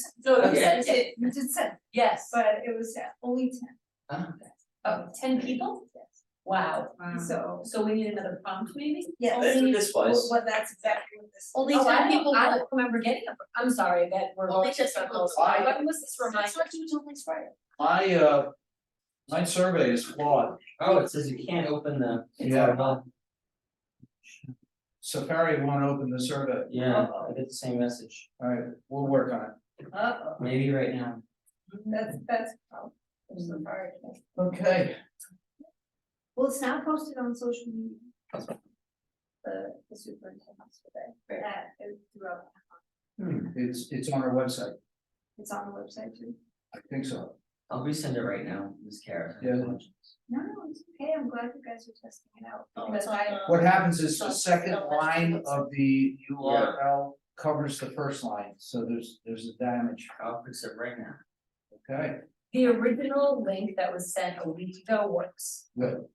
So Okay. you sent it, It you did send, yes, but it was only ten, oh, ten people? Wow, so so we need another prompt maybe? yes. That's what this was. Well, that's exactly what this. Only is. Oh, ten people, I don't remember getting a, I'm sorry that we're going to circles, Why? when was this reminder? My uh, my survey is flawed, Oh, it says you can't open the. it's Yeah. out of line. Safari won't open the survey, Yeah, Uh-oh. I get the same message, alright, we'll work on it. Uh-oh. maybe right now. That's that's probably. so far. Okay. Well, it's now posted on social media. The the superintendent's today, that is throughout, It's it's on our website, it's on the website too. I think so, I'll resend it right now, Ms. Kara. Yeah. No, no, it's okay, I'm glad you guys are testing it out, Oh, because it's on I, the- what happens is the second line of the URL covers the first line, so there's there's a damage, I'll fix it right now. okay? The original link that was sent a week ago works. Good.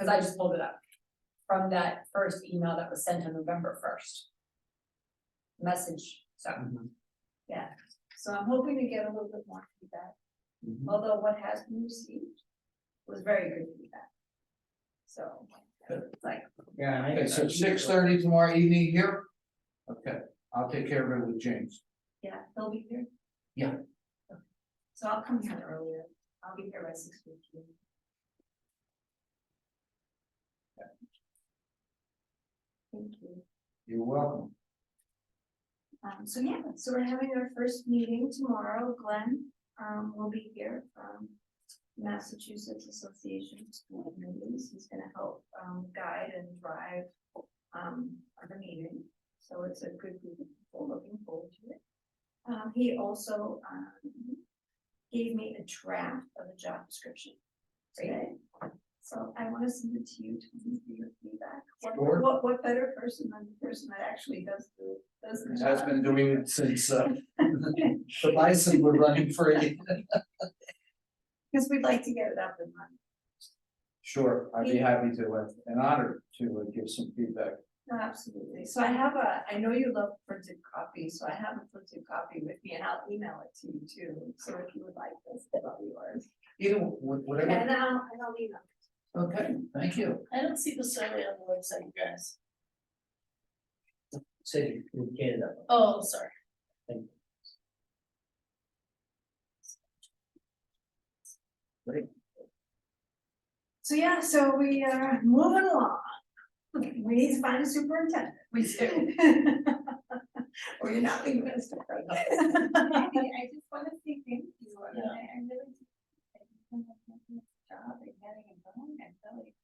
Cause I just pulled it up from that first email that was sent on November first. Message, so. Mm-hmm. yeah, so I'm hoping to get a little bit more feedback. Mhm. although what has been received was very good feedback. So, it's like, Yeah. and I- Okay, so six thirty tomorrow evening here? Okay, I'll take care of it with James. yeah, they'll be here. Yeah. Okay. So I'll come here earlier, I'll be here by six fifteen. Thank you, You're welcome. um, so yeah, so we're having our first meeting tomorrow, Glenn, um, will be here from. Massachusetts Association of School Committees, he's gonna help, um, guide and drive um, of the meeting, so it's a good group of people looking forward to it. Um, he also, um, gave me a draft of a job description today. So I wanna send it to you to give you your feedback. What- Sure. What, what better person than the person that actually does the, does the job? Has been doing it since uh the bison were running free. Cause we'd like to get it up and running. Sure, I'd be happy to, uh, and honored to uh, give some feedback. No, absolutely. So I have a, I know you love printed copy, so I have a printed copy with me and I'll email it to you too. So if you would like this, that'll be yours. Either, wh- whatever, And I'll, and I'll email. okay, thank you. I don't see the survey on the website, guys. So you you get it up. Oh, sorry. So yeah, so we are moving along. We need to find a superintendent. We do. Or you're not leaving us. I just wanna say thank you, I mean, I, I really. Job and getting it done and really.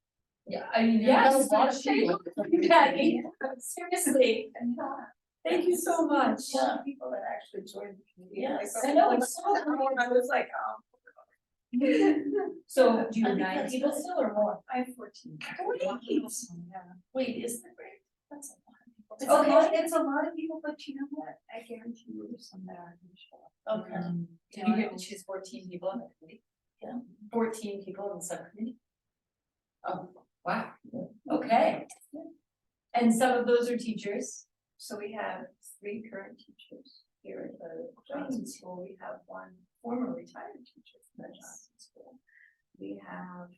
Yeah, I mean, Yes, yes, that's thank true. you, Patty. seriously, And, uh, thank you so much. Yeah, people that actually joined. the community, like, Yes, but I know, like, it's so some of them, hard. I was like, um. So do you I have think nine that's people good. still or more? I have fourteen. Forty Yeah. kids. Wait, is that right? That's It's a a lot. lot, it's a lot of people, but you know what, I guarantee you there's some that aren't gonna show up. Okay. Do you get to choose fourteen people in the committee? Um, Yeah. Fourteen people in the subcommittee? Oh, wow, okay. And some of those are teachers, So we have three current teachers here at the Johnson School, we have one former retired teacher from the Johnson School. We have,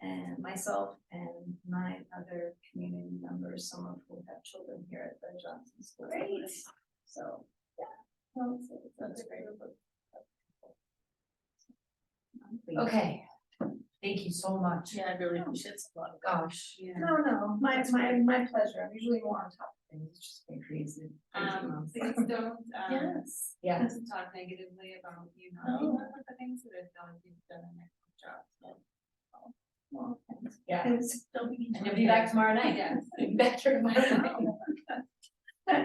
and myself and nine other community members, some of whom have children here at the Johnson School. Great. So, yeah. no, it's- it's a- it's a great group of people. Um, we- okay. Thank you so much. Yeah, I really appreciate it. a lot of guys. Gosh, Yeah. No, no, my, my, my pleasure, I'm usually more on top of things, it's just been crazy. Um, please don't, um, yes, Oh. yeah, don't talk negatively about, you know, No. you know, the things that have done, you've done an excellent job, so. Well, thanks. yeah. Thanks. Don't be. And you'll be back tomorrow night. Yes. You'll be back here tomorrow night.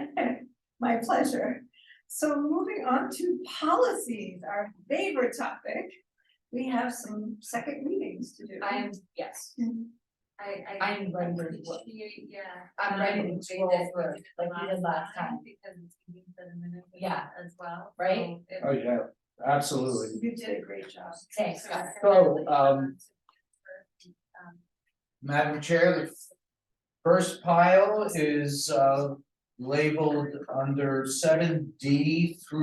My pleasure. So moving on to policies, our favorite topic. We have some second readings to do. I am, yes, I, I. I am ready for work. appreciate, Yeah. I'm ready to um, scroll that we through, did like we did last time. Because it's been for the minute. Yeah. As well. Right? so it- Oh, yeah, absolutely. You did a great job. Thanks, guys. So, um, Um, Madam Chair, the first pile is uh labeled under seven D through